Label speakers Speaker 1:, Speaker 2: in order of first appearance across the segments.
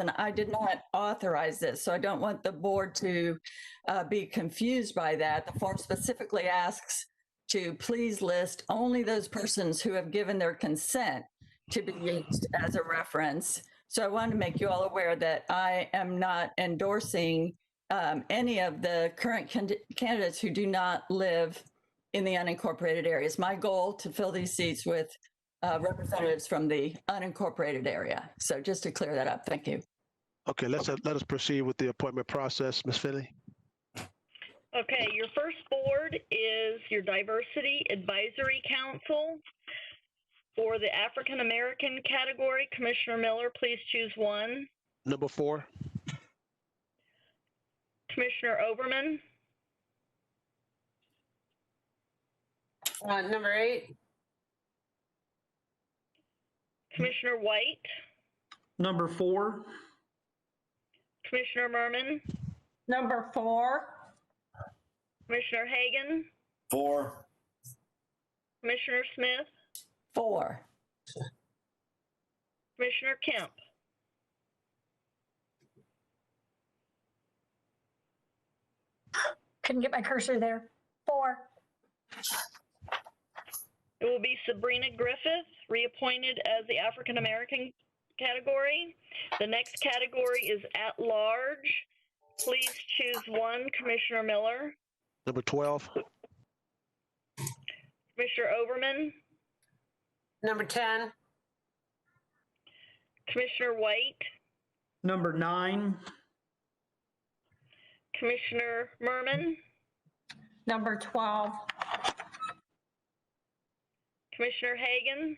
Speaker 1: And I did not authorize this, so I don't want the board to uh, be confused by that. The form specifically asks to please list only those persons who have given their consent to be used as a reference. So I wanted to make you all aware that I am not endorsing um, any of the current can- candidates who do not live in the unincorporated areas. My goal to fill these seats with uh, representatives from the unincorporated area. So just to clear that up, thank you.
Speaker 2: Okay, let's, uh, let us proceed with the appointment process. Ms. Finley?
Speaker 3: Okay, your first board is your Diversity Advisory Council. For the African American category, Commissioner Miller, please choose one.
Speaker 2: Number four?
Speaker 3: Commissioner Oberman,
Speaker 4: Uh, number eight,
Speaker 3: Commissioner White,
Speaker 5: Number four,
Speaker 3: Commissioner Merman,
Speaker 4: number four,
Speaker 3: Commissioner Hagan,
Speaker 6: Four,
Speaker 3: Commissioner Smith,
Speaker 1: Four,
Speaker 3: Commissioner Kemp.
Speaker 7: couldn't get my cursor there. Four.
Speaker 3: It will be Sabrina Griffith, reappointed as the African American category. The next category is at large. Please choose one, Commissioner Miller,
Speaker 2: Number 12?
Speaker 3: Commissioner Oberman,
Speaker 4: number 10,
Speaker 3: Commissioner White,
Speaker 5: number nine,
Speaker 3: Commissioner Merman,
Speaker 4: number 12,
Speaker 3: Commissioner Hagan,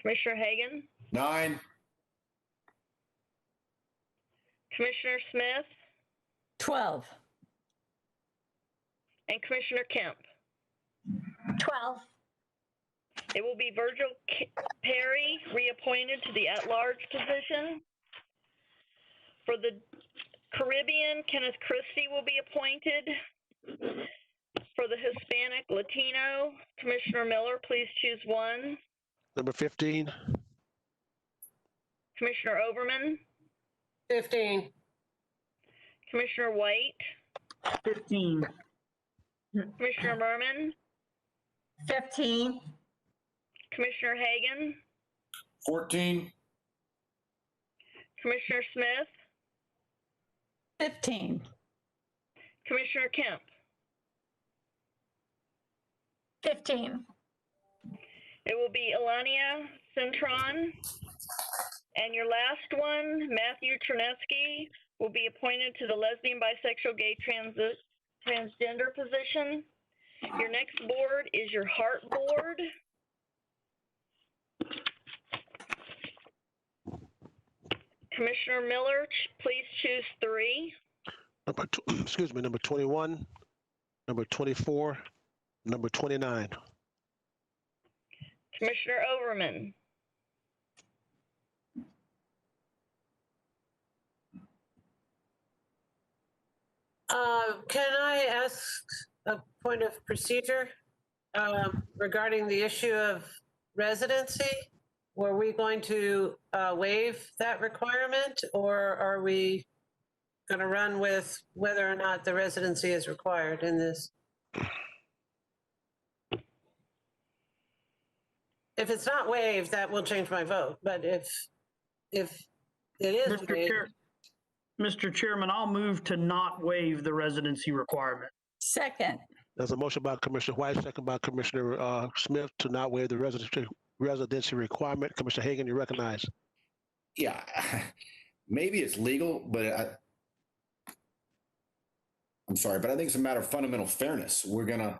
Speaker 3: Commissioner Hagan,
Speaker 6: nine,
Speaker 3: Commissioner Smith,
Speaker 1: 12,
Speaker 3: and Commissioner Kemp.
Speaker 7: 12.
Speaker 3: It will be Virgil K- Perry reappointed to the at-large position. For the Caribbean, Kenneth Christie will be appointed. For the Hispanic Latino, Commissioner Miller, please choose one.
Speaker 2: Number 15?
Speaker 3: Commissioner Overman,
Speaker 4: 15,
Speaker 3: Commissioner White,
Speaker 5: 15,
Speaker 3: Commissioner Merman,
Speaker 4: 15,
Speaker 3: Commissioner Hagan,
Speaker 6: fourteen,
Speaker 3: Commissioner Smith,
Speaker 1: 15,
Speaker 3: Commissioner Kemp.
Speaker 7: 15.
Speaker 3: It will be Elania Centron. And your last one, Matthew Trineski, will be appointed to the lesbian, bisexual, gay, transi- transgender position. Your next board is your heart board. Commissioner Miller, ch- please choose three.
Speaker 2: Number, tw- excuse me, number 21? Number 24? Number 29?
Speaker 3: Commissioner Overman,
Speaker 4: Uh, Can I ask a point of procedure um, regarding the issue of residency? Were we going to uh, waive that requirement, or are we going to run with whether or not the residency is required in this? If it's not waived, that will change my vote, but if, if it is
Speaker 5: Mr.
Speaker 4: waived,
Speaker 5: Chair. Mr. Chairman, I'll move to not waive the residency requirement.
Speaker 1: second,
Speaker 2: There's a motion by Commissioner White, second by Commissioner uh, Smith to not waive the residency, residency requirement. Commissioner Hagan, you recognize.
Speaker 6: yeah. Maybe it's legal, but I, I'm sorry, but I think it's a matter of fundamental fairness. We're gonna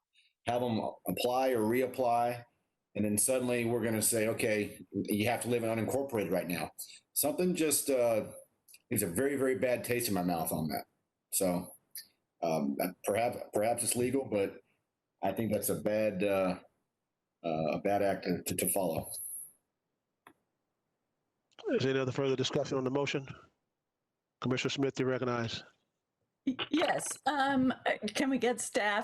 Speaker 6: have them apply or reapply, and then suddenly we're gonna say, okay, you have to live in unincorporated right now. Something just uh, leaves a very, very bad taste in my mouth on that. So um, perhaps, perhaps it's legal, but I think that's a bad, uh, uh, a bad act to, to follow.
Speaker 2: Is there any other further discussion on the motion? Commissioner Smith, you recognize.
Speaker 1: Y- yes. Um, uh, can we get staff